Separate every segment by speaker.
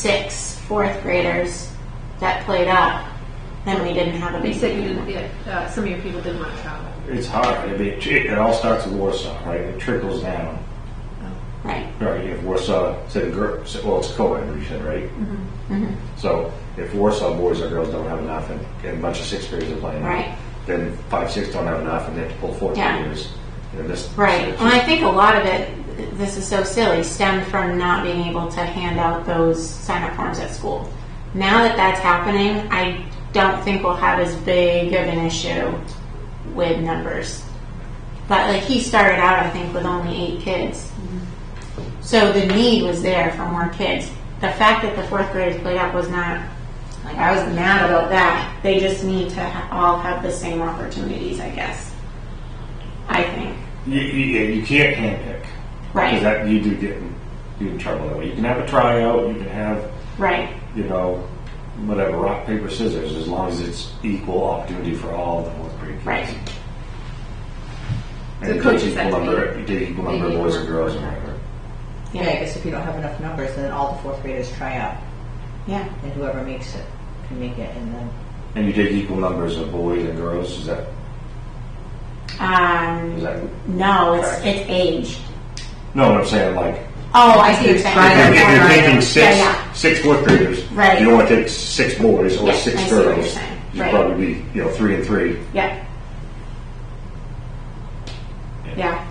Speaker 1: six fourth graders that played up, then we didn't have a
Speaker 2: You
Speaker 1: big.
Speaker 2: said you didn't, yeah, uh, some of your people didn't want to travel.
Speaker 3: It's hard. I mean, it, it all starts with Warsaw, right? It trickles down.
Speaker 1: Right.
Speaker 3: Right. If Warsaw said girl, well, it's co-ed, you said, right?
Speaker 1: Mm-hmm.
Speaker 3: So if Warsaw boys or girls don't have enough, and, and a bunch of sixth graders are playing,
Speaker 1: Right.
Speaker 3: Then five, six don't have enough, and they have to pull fourth
Speaker 1: Yeah.
Speaker 3: graders. You know, this,
Speaker 1: Right. Well, I think a lot of it, this is so silly, stemmed from not being able to hand out those sign up forms at school. Now that that's happening, I don't think we'll have as big of an issue with numbers. But like he started out, I think, with only eight kids. So the need was there for more kids. The fact that the fourth graders played up was not, like, I was mad about that. They just need to ha- all have the same opportunities, I guess. I think.
Speaker 3: You, you, you can't handpick.
Speaker 1: Right.
Speaker 3: Because that you do get in, you in trouble that way. You can have a tryout. You can have
Speaker 1: Right,
Speaker 3: you know whatever rock paper scissors as long as it's equal opportunity for all the fourth grade kids.
Speaker 1: right.
Speaker 3: And
Speaker 2: The
Speaker 3: it
Speaker 2: coaches
Speaker 3: takes
Speaker 2: have
Speaker 3: equal
Speaker 2: to be-
Speaker 3: number, it takes equal number of
Speaker 4: equal.
Speaker 3: boys and girls and whatever.
Speaker 4: Yeah, I guess if you don't have enough numbers, then all the fourth graders try out,
Speaker 1: Yeah.
Speaker 4: and whoever makes it can make it, and then
Speaker 3: And you take equal numbers of boys and girls, is that, is
Speaker 1: Um,
Speaker 3: that,
Speaker 1: no, it's, it's age.
Speaker 3: no, what I'm saying, like,
Speaker 1: Oh, I see what you're saying.
Speaker 3: if
Speaker 4: Right,
Speaker 3: you're- if you're
Speaker 4: right.
Speaker 3: taking six,
Speaker 1: Yeah, yeah.
Speaker 3: six fourth graders,
Speaker 1: Right.
Speaker 3: you don't want to take six boys or
Speaker 1: Yes, I
Speaker 3: six
Speaker 1: see what you're
Speaker 3: girls.
Speaker 1: saying.
Speaker 3: You'd
Speaker 1: Right.
Speaker 3: probably be, you know, three and three.
Speaker 1: Yep. Yeah.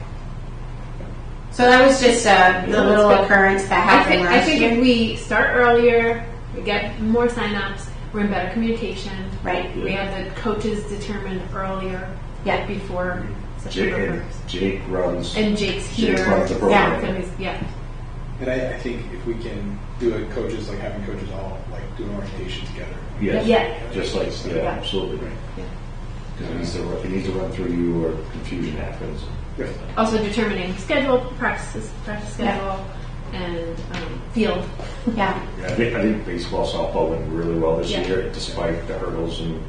Speaker 1: So that was just, uh, the
Speaker 3: Yeah,
Speaker 1: little
Speaker 2: that's good.
Speaker 1: occurrence that
Speaker 2: I
Speaker 1: happened
Speaker 2: think, I
Speaker 1: last
Speaker 2: think
Speaker 1: year.
Speaker 2: if we start earlier, we get more signups, we're in better communication.
Speaker 1: Right,
Speaker 2: We have the coaches determined earlier,
Speaker 1: yeah,
Speaker 2: before
Speaker 3: Jake, and
Speaker 2: September first.
Speaker 3: Jake runs,
Speaker 2: And Jake's here.
Speaker 3: Jake runs the
Speaker 1: Yeah.
Speaker 3: program.
Speaker 2: So he's- Yeah,
Speaker 5: And I, I think if we can do it, coaches, like having coaches all like do an orientation together.
Speaker 2: Yeah.
Speaker 3: Yes, just like, yeah,
Speaker 2: Yeah.
Speaker 3: absolutely.
Speaker 2: Yeah.
Speaker 3: Because it needs to, run- it needs to run through you or confusion happens.
Speaker 5: Yeah.
Speaker 2: also determining schedule, practices, practice schedule, and um, field.
Speaker 1: yeah,
Speaker 3: I think, I think baseball, softball went really well this
Speaker 2: Yeah.
Speaker 3: year, despite the hurdles and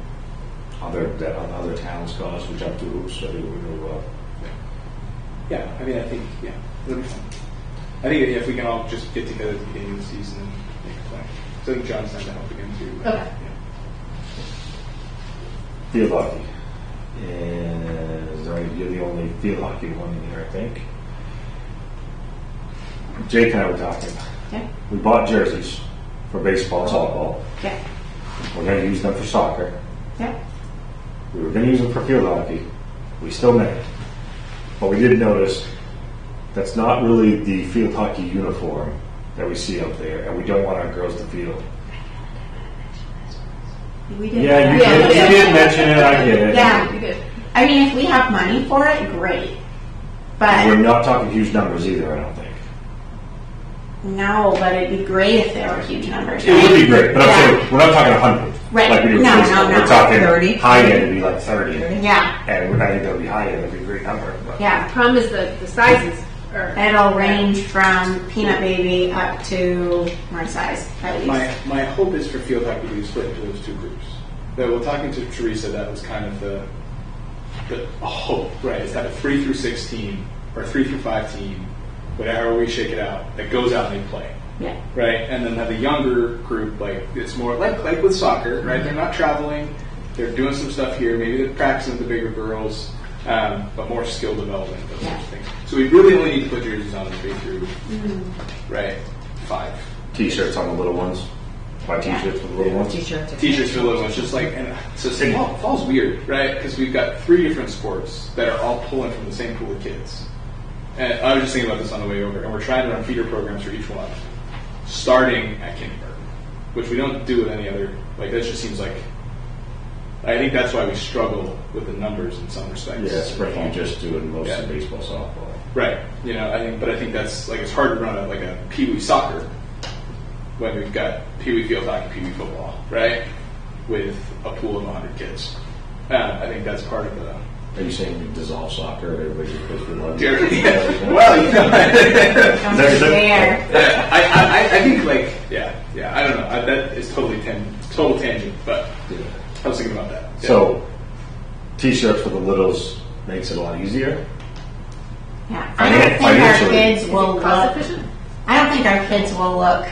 Speaker 3: other, that other towns caused, which up to hoops, so they went really well.
Speaker 5: Yeah, I mean, I think, yeah, it'll be fun. I think if we can all just get together at the beginning of the season and make a plan. So I think John's time to help again too.
Speaker 2: Okay.
Speaker 3: Field hockey. And sorry, you're the only field hockey one in here, I think. Jake and I were talking.
Speaker 1: yeah,
Speaker 3: We bought jerseys for baseball, softball.
Speaker 1: yeah,
Speaker 3: We're going to use them for soccer.
Speaker 1: yeah.
Speaker 3: We were going to use them for field hockey. We still may. But we did notice that's not really the field hockey uniform that we see up there, and we don't want our girls to field.
Speaker 1: We did.
Speaker 3: Yeah, you,
Speaker 2: Yeah,
Speaker 3: did,
Speaker 2: yeah.
Speaker 3: you did mention it. I get it.
Speaker 1: Yeah.
Speaker 2: You did.
Speaker 1: I mean, if we have money for it, great.
Speaker 3: We're
Speaker 1: But,
Speaker 3: not talking huge numbers either. I don't think.
Speaker 1: no, but it'd be great if there were huge numbers.
Speaker 3: It would be great, but I'm
Speaker 1: Yeah.
Speaker 3: saying, we're not talking a hundred.
Speaker 1: Right.
Speaker 3: Like we do with
Speaker 1: No, no,
Speaker 3: baseball.
Speaker 1: no.
Speaker 3: We're talking
Speaker 4: 30.
Speaker 3: high end would be like thirty.
Speaker 1: Yeah,
Speaker 3: And we're not even gonna be high end, it'd be a great number. but-
Speaker 1: yeah.
Speaker 2: Problem is the, the sizes are.
Speaker 1: It'll range from peanut baby up to my size, at
Speaker 5: My,
Speaker 1: least.
Speaker 5: my hope is for field hockey to be split into those two groups. Though, well, talking to Teresa, that was kind of the, the hope, right? Is that a three through six team or three through five team, whatever we shake it out, that goes out and they play.
Speaker 1: Yeah,
Speaker 5: right? And then have the younger group, like it's more like like with soccer, right? They're not traveling, they're doing some stuff here. Maybe they're practicing with the bigger girls, um, but more skill development, those sorts of things. So we really only need to put jerseys on three through, right? Five
Speaker 3: T-shirts on the little ones. Buy T-shirts for the little ones.
Speaker 4: t-shirts. are-
Speaker 5: teachers for little ones, just like and so it's- fall, fall's weird, right? Because we've got three different sports that are all pulling from the same pool of kids. And I was just thinking about this on the way over, and we're trying to run feeder programs for each one, starting at kindergarten, which we don't do with any other. Like that just seems like. I think that's why we struggle with the numbers in some respects.
Speaker 3: Yeah, spring you just doing most of baseball, softball.
Speaker 5: Right. You know, I think, but I think that's like it's hard to run a, like a pee wee soccer when we've got pee wee field hockey, pee wee football, right? With a pool of 100 kids. Uh, I think that's part of the.
Speaker 3: Are you saying we dissolve soccer? Everybody just goes for one.
Speaker 5: well, you know,
Speaker 1: don't you dare.
Speaker 5: I, I, I- I think like yeah, yeah. I don't know. I, that is totally tan- total tangent, but
Speaker 3: Yeah.
Speaker 5: I was thinking about that. Yeah.
Speaker 3: So, T-shirts for the littles makes it a lot easier.
Speaker 1: Yeah, I don't think our
Speaker 3: Financially.
Speaker 1: kids
Speaker 2: Is
Speaker 1: will
Speaker 2: it cost
Speaker 1: look.
Speaker 2: efficient?
Speaker 1: I don't think our kids will look